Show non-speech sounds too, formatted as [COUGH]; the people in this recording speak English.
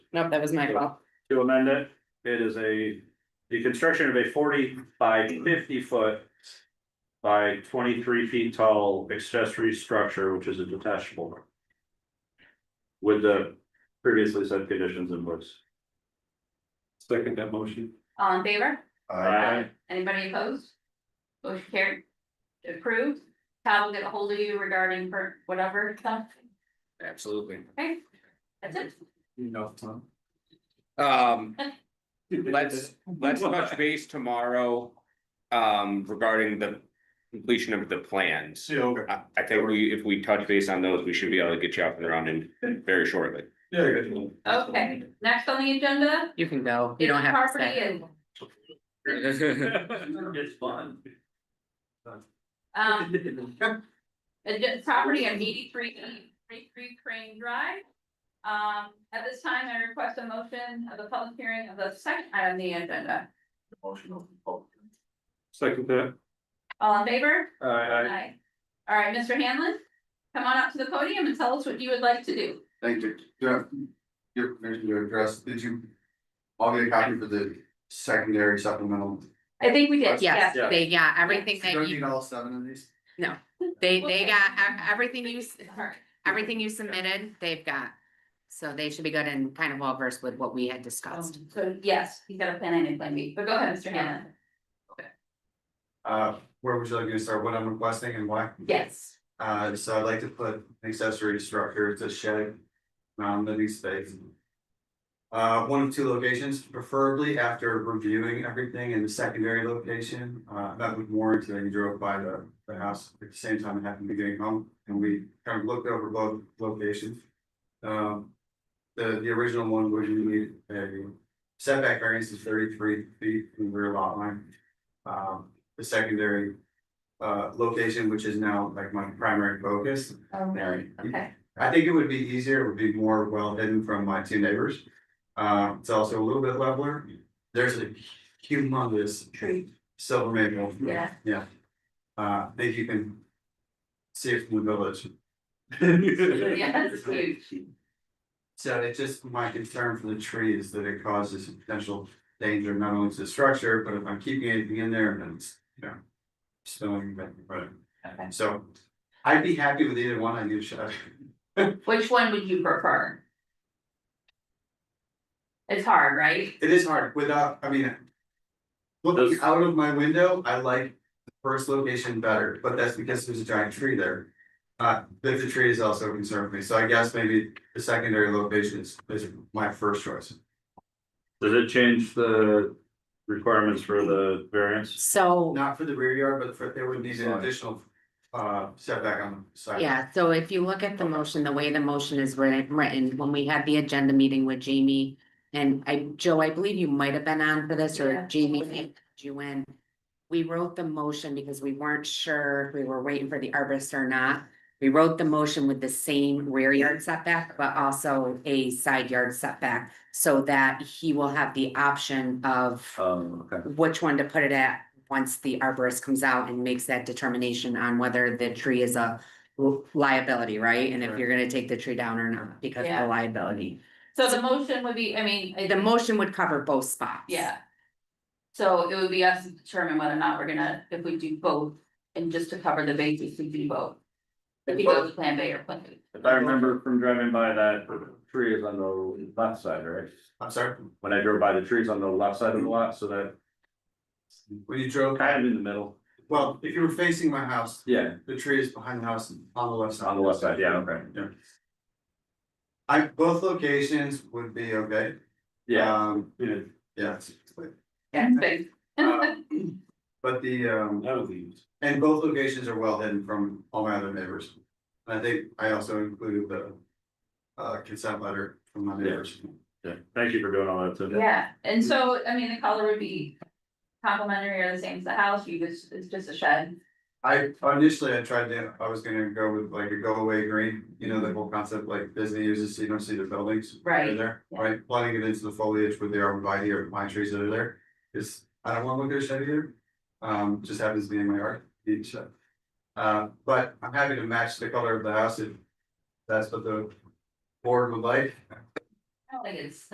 Nope, that was my fault. to amend it, it is a, the construction of a forty by fifty foot. By twenty-three feet tall accessory structure, which is a detachable. With the previously said conditions in place. Second that motion. All in favor? Aye. Anybody opposed? Motion carried. Approved. Todd will get a hold of you regarding for whatever stuff. Absolutely. Okay. That's it. No, Tom. Um, let's, let's touch base tomorrow. Um, regarding the completion of the plans. Yeah, okay. I, I think we, if we touch base on those, we should be able to get you up and running very shortly. Yeah, I got you. Okay, next on the agenda. You can go. You is don't have to property stay. and It's fun. Um, it's property at eighty-three, eighty-three Crane Drive. Um, at this time, I request a motion of the public hearing of the second item on the agenda. Second that. All in favor? Aye. [LAUGHS] Aye. All right, Mr. Hanlon, come on up to the podium and tell us what you would like to do. Thank you. Jeff, your permission to address, did you? I'll get a copy for the secondary supplemental. I think we Yes, did, yes. Yeah. they, yeah, everything that don't need you, all seven of these? they, they Okay. got, e- everything you, s- All right. everything you submitted, they've got. So they should be good and kind of well versed with what we had discussed. Um, So, yes, he's got a plan A and a plan B, but go ahead, Mr. Hanlon. Uh, where was I gonna start, what I'm requesting and why? Yes. Uh, so I'd like to put an accessory structure to shed, non-living space. Uh, one of two locations, preferably after reviewing everything in the secondary location, uh, that would warrant that I drove by the, the house at the same time I happened to be getting home, and we kind of looked over both locations. Um, the, the original one would need a setback variance of thirty-three feet from the rear lot line. Um, the secondary uh, location, which is now like my primary focus. Oh, really? Okay. I think it would be easier, it would be more well hidden from my two neighbors. Uh, it's also a little bit leveler. There's a humongous Tree. silver maple. [LAUGHS] Yeah. Yeah. Uh, I think you can see it from the village. Yeah, that's huge. So it's just my concern for the tree is that it causes potential danger not only to the structure, but if I'm keeping anything in there, then it's, you know. Spilling, but, but, Okay. so I'd be happy with either one, I give a shot. Which one would you prefer? It's hard, right? It is hard without, I mean. Looking Those- out of my window, I like the first location better, but that's because there's a giant tree there. Uh, but the tree is also a concern for me, so I guess maybe the secondary location is, is my first choice. Does it change the requirements for the variance? So, Not for the rear yard, but for, there would need an Side. additional uh setback on the side. yeah, so if you look at the motion, the way the motion is written, written, when we had the agenda meeting with Jamie. And I, Joe, I believe you might have been on for this Yeah. or Jamie had you in. We wrote the motion because we weren't sure if we were waiting for the arborist or not. We wrote the motion with the same rear yard setback, but also a side yard setback. So that he will have the option of Um, okay. which one to put it at once the arborist comes out and makes that determination on whether the tree is a li- liability, right? And if you're gonna take the tree down or not because of Yeah. the liability. So the motion would be, I mean, it- The motion would cover both spots. yeah. So it would be us to determine whether or not we're gonna, if we do both, and just to cover the bases, we do both. If you go with plan B or plan B. If I remember from driving by that, tree is on the left side, right? I'm sorry, When I drove by, the tree's on the left side of the lot, so that when you drove, kind of in the middle. well, if you were facing my house, Yeah, the tree is behind the house and on the left side. on the left side, yeah, okay. Yeah. I, both locations would be okay. Yeah, Um, you know, yeah. it's- Yeah, space. uh, But the um, that would leave. and both locations are well hidden from all my other neighbors. And I think I also included the uh consent letter from my neighbors. Yeah, thank you for doing all that too. Yeah, and so, I mean, the color would be complimentary or the same as the house, you just, it's just a shed. I initially I tried to, I was gonna go with like a go away green, you know, the whole concept like Disney uses, so you don't see the buildings. that are Right, There, yeah. right, blending it into the foliage with the arborvitae or pine trees that are there, is, I don't wanna look at a shed either. Um, just happens to be in my yard, each shed. Uh, but I'm happy to match the color of the house if that's what the board would like. I don't think it's